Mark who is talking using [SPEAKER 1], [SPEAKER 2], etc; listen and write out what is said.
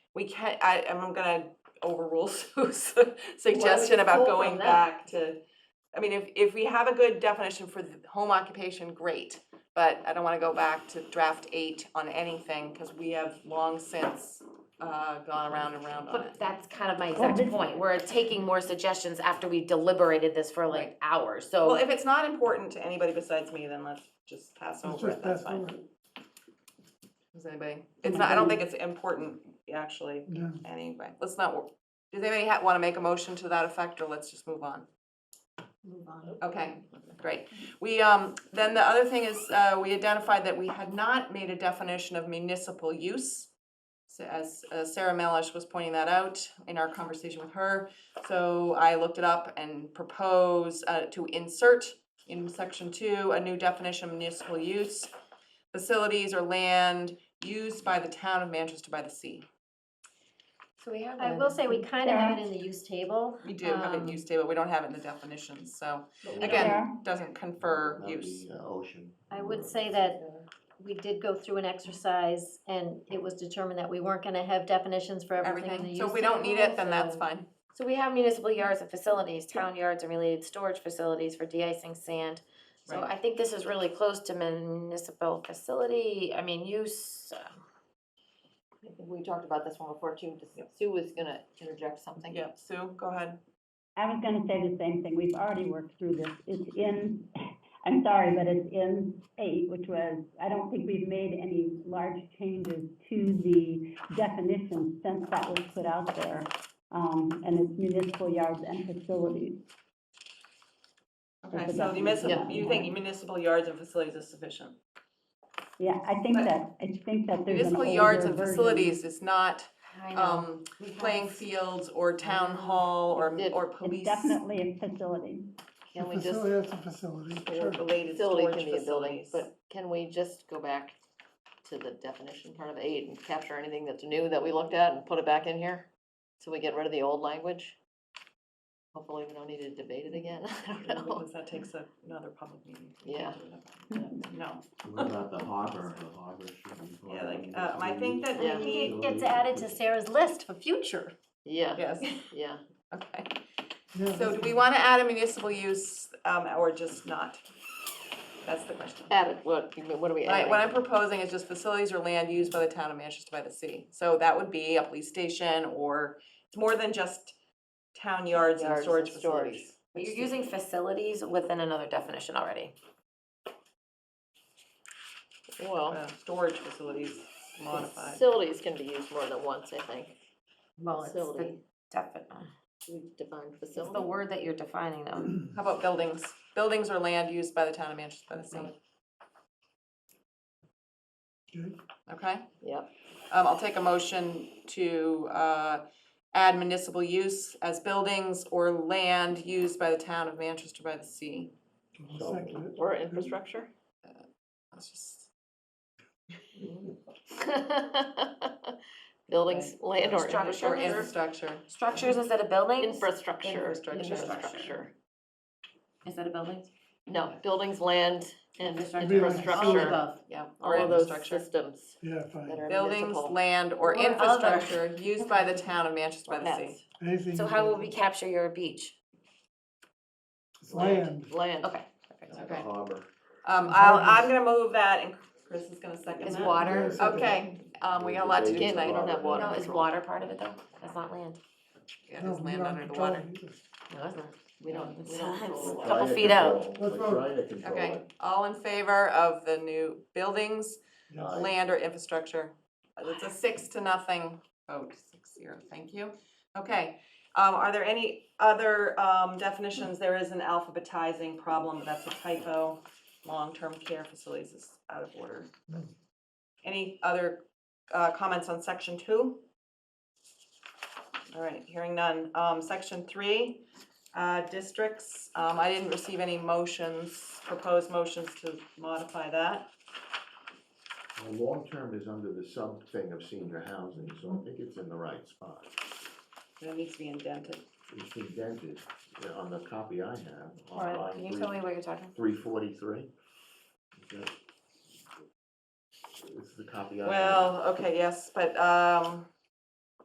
[SPEAKER 1] we can't, I, I'm gonna overrule Sue's suggestion about
[SPEAKER 2] pull from
[SPEAKER 1] going
[SPEAKER 2] that?
[SPEAKER 1] back to, I mean, if, if we have a good definition for the home occupation, great, but I don't wanna go back to draft eight on anything, cause we have long since, uh, gone around and around on it.
[SPEAKER 2] But that's kind of my exact point, we're taking more suggestions after we deliberated this for like
[SPEAKER 1] Right.
[SPEAKER 2] hours,
[SPEAKER 1] Well,
[SPEAKER 2] so.
[SPEAKER 1] if it's not important to anybody besides me, then let's just pass
[SPEAKER 3] Let's
[SPEAKER 1] over it,
[SPEAKER 3] just
[SPEAKER 1] that's
[SPEAKER 3] pass
[SPEAKER 1] fine.
[SPEAKER 3] over it.
[SPEAKER 1] Does anybody, it's not, I don't think it's important, actually,
[SPEAKER 3] Yeah.
[SPEAKER 1] anyway, let's not, wor- does anybody ha- wanna make a motion to that effect, or let's just move on?
[SPEAKER 2] Move on.
[SPEAKER 1] Okay, great. We, um, then the other thing is, uh, we identified that we had not made a definition of municipal use. So as uh, Sarah Melish was pointing that out in our conversation with her, so I looked it up and propose, uh, to insert in section two, a new definition of municipal use. Facilities or land used by the town of Manchester by the sea.
[SPEAKER 2] So we have.
[SPEAKER 4] I will say, we kind of have it in the use table.
[SPEAKER 1] We do have it
[SPEAKER 4] um,
[SPEAKER 1] in use table, we don't have it in the definitions, so
[SPEAKER 5] But we don't-
[SPEAKER 1] again, doesn't
[SPEAKER 5] that
[SPEAKER 1] confer
[SPEAKER 5] would
[SPEAKER 1] use.
[SPEAKER 5] be, uh, Ocean.
[SPEAKER 4] I
[SPEAKER 3] um,
[SPEAKER 4] would say that we did go through an exercise and it was determined that we weren't gonna have definitions for everything in the
[SPEAKER 1] everything,
[SPEAKER 4] use
[SPEAKER 1] so if we don't need it, then that's
[SPEAKER 4] table, so-
[SPEAKER 1] fine.
[SPEAKER 2] So we have municipal yards and facilities, town yards and related storage facilities for de-icing sand. So
[SPEAKER 1] Right.
[SPEAKER 2] I think this is really close to municipal facility, I mean, use, uh,
[SPEAKER 6] I think we talked about this one before too, just Sue was gonna interject something.
[SPEAKER 1] Yeah, Sue, go ahead.
[SPEAKER 7] I was gonna say the same thing, we've already worked through this, it's in, I'm sorry, but it's in eight, which was, I don't think we've made any large changes to the definition since that was put out there. Um, and it's municipal yards and facilities.
[SPEAKER 1] Okay,
[SPEAKER 7] That's
[SPEAKER 1] so
[SPEAKER 7] about-
[SPEAKER 1] municipal,
[SPEAKER 7] yeah.
[SPEAKER 1] you think municipal yards and facilities is sufficient?
[SPEAKER 7] Yeah, I think
[SPEAKER 1] But-
[SPEAKER 7] that, I think that there's an
[SPEAKER 1] Municipal yards
[SPEAKER 7] older
[SPEAKER 1] and
[SPEAKER 7] version.
[SPEAKER 1] facilities is not,
[SPEAKER 2] I know.
[SPEAKER 1] um,
[SPEAKER 2] We have-
[SPEAKER 1] playing fields or town hall or,
[SPEAKER 6] It-
[SPEAKER 1] or
[SPEAKER 7] It's
[SPEAKER 1] police.
[SPEAKER 7] definitely a facility.
[SPEAKER 6] Can we just,
[SPEAKER 3] Facility, that's a facility,
[SPEAKER 1] Or
[SPEAKER 3] sure.
[SPEAKER 1] related
[SPEAKER 6] facility
[SPEAKER 1] storage
[SPEAKER 6] can be a building,
[SPEAKER 1] facilities.
[SPEAKER 6] but can we just go back to the definition part of eight and capture anything that's new that we looked at and put it back in here? So we get rid of the old language? Hopefully we don't need to debate it again, I don't know.
[SPEAKER 1] Because that takes a- another public meeting.
[SPEAKER 6] Yeah.
[SPEAKER 1] No,
[SPEAKER 5] What about the harbor, the harbor should be. part
[SPEAKER 1] yeah,
[SPEAKER 5] of
[SPEAKER 1] like,
[SPEAKER 5] it.
[SPEAKER 1] uh, I think that
[SPEAKER 6] Yeah.
[SPEAKER 1] we
[SPEAKER 4] I think it
[SPEAKER 1] need,
[SPEAKER 4] gets added to Sarah's list for future.
[SPEAKER 6] Yeah,
[SPEAKER 1] yes,
[SPEAKER 6] yeah,
[SPEAKER 1] okay.
[SPEAKER 3] Yeah,
[SPEAKER 1] So
[SPEAKER 3] that's
[SPEAKER 1] do we wanna add a municipal use, um, or just not? That's the question.
[SPEAKER 6] added, what, you mean, what are we
[SPEAKER 1] Right, what I'm
[SPEAKER 6] adding?
[SPEAKER 1] proposing is just facilities or land used by the town of Manchester by the sea. So that would be a police station or, it's more than just town yards and
[SPEAKER 6] Yards
[SPEAKER 1] storage
[SPEAKER 6] and storage.
[SPEAKER 1] facilities.
[SPEAKER 2] You're using facilities within another definition already.
[SPEAKER 6] Well,
[SPEAKER 1] Uh, Storage facilities modified.
[SPEAKER 6] facilities can be used more than once, I think.
[SPEAKER 2] Well, it's the
[SPEAKER 6] Facility,
[SPEAKER 2] definite,
[SPEAKER 6] we defined
[SPEAKER 2] it's the
[SPEAKER 6] facility.
[SPEAKER 2] word that you're defining
[SPEAKER 6] Mm-hmm.
[SPEAKER 2] them.
[SPEAKER 1] How about buildings? Buildings or land used by the town of Manchester by the sea,
[SPEAKER 3] good.
[SPEAKER 1] okay?
[SPEAKER 6] Yep,
[SPEAKER 1] Um, I'll take a motion to, uh, add municipal use as buildings or land used by the town of Manchester by the sea.
[SPEAKER 3] I'll
[SPEAKER 5] So-
[SPEAKER 3] second it.
[SPEAKER 6] or infrastructure.
[SPEAKER 1] That's just.
[SPEAKER 6] Buildings, land or
[SPEAKER 2] Structure.
[SPEAKER 1] Or
[SPEAKER 6] infrastructure.
[SPEAKER 1] infrastructure.
[SPEAKER 2] Structures instead of buildings?
[SPEAKER 6] Infrastructure.
[SPEAKER 1] Infrastructure.
[SPEAKER 6] Infrastructure.
[SPEAKER 2] Instead of buildings?
[SPEAKER 6] No, buildings, land, and
[SPEAKER 2] Infrastructure. All
[SPEAKER 6] infrastructure.
[SPEAKER 2] above, yeah.
[SPEAKER 1] Or
[SPEAKER 6] All of those
[SPEAKER 1] infrastructure.
[SPEAKER 6] systems
[SPEAKER 3] Yeah,
[SPEAKER 6] that
[SPEAKER 3] fine.
[SPEAKER 6] are
[SPEAKER 1] Buildings,
[SPEAKER 6] municipal.
[SPEAKER 1] land, or
[SPEAKER 2] Or other.
[SPEAKER 1] infrastructure used by the town of Manchester by the sea.
[SPEAKER 6] Yes.
[SPEAKER 3] Anything
[SPEAKER 2] So how will we capture your beach?
[SPEAKER 3] Land,
[SPEAKER 6] Land.
[SPEAKER 2] Okay.
[SPEAKER 5] Like
[SPEAKER 1] Okay.
[SPEAKER 5] a harbor.
[SPEAKER 1] Um, I'll, I'm gonna move that and Chris is gonna second
[SPEAKER 2] Is
[SPEAKER 1] that.
[SPEAKER 2] water,
[SPEAKER 3] Yes.
[SPEAKER 1] Okay, um, we got a lot to do
[SPEAKER 6] Again,
[SPEAKER 1] tonight.
[SPEAKER 6] I don't have water.
[SPEAKER 2] no, is water part of it though? That's not land.
[SPEAKER 1] Yeah,
[SPEAKER 3] no,
[SPEAKER 1] there's
[SPEAKER 3] we
[SPEAKER 1] land
[SPEAKER 3] don't
[SPEAKER 1] under the
[SPEAKER 3] control
[SPEAKER 1] water.
[SPEAKER 3] it either.
[SPEAKER 2] No, it's not.
[SPEAKER 6] We don't, we don't
[SPEAKER 2] It's a
[SPEAKER 6] control
[SPEAKER 5] We're
[SPEAKER 6] the
[SPEAKER 2] couple
[SPEAKER 5] trying to
[SPEAKER 2] feet out.
[SPEAKER 5] control-
[SPEAKER 3] Let's
[SPEAKER 5] We're
[SPEAKER 3] vote.
[SPEAKER 5] trying to control
[SPEAKER 1] Okay,
[SPEAKER 5] it.
[SPEAKER 1] all in favor of the new buildings,
[SPEAKER 3] Yes.
[SPEAKER 5] Aye.
[SPEAKER 1] land or infrastructure? Uh, It's a six to nothing vote, six zero, thank you. Okay, um, are there any other, um, definitions? There is an alphabetizing problem, but that's a typo. Long-term care facilities is out of order. Any other, uh, comments on section two? All right, hearing none. Um, section three, uh, districts, um, I didn't receive any motions, proposed motions to modify that.
[SPEAKER 5] Well, Long-term is under the sub thing of senior housing, so I think it's in the right spot.
[SPEAKER 1] It needs to be indented.
[SPEAKER 5] It's indented uh, on the copy I have. on
[SPEAKER 2] All right,
[SPEAKER 5] line
[SPEAKER 2] can you tell
[SPEAKER 5] three-
[SPEAKER 2] me what you're talking?
[SPEAKER 5] Three forty-three. It's the copy I have.
[SPEAKER 1] Well, okay, yes, but, um,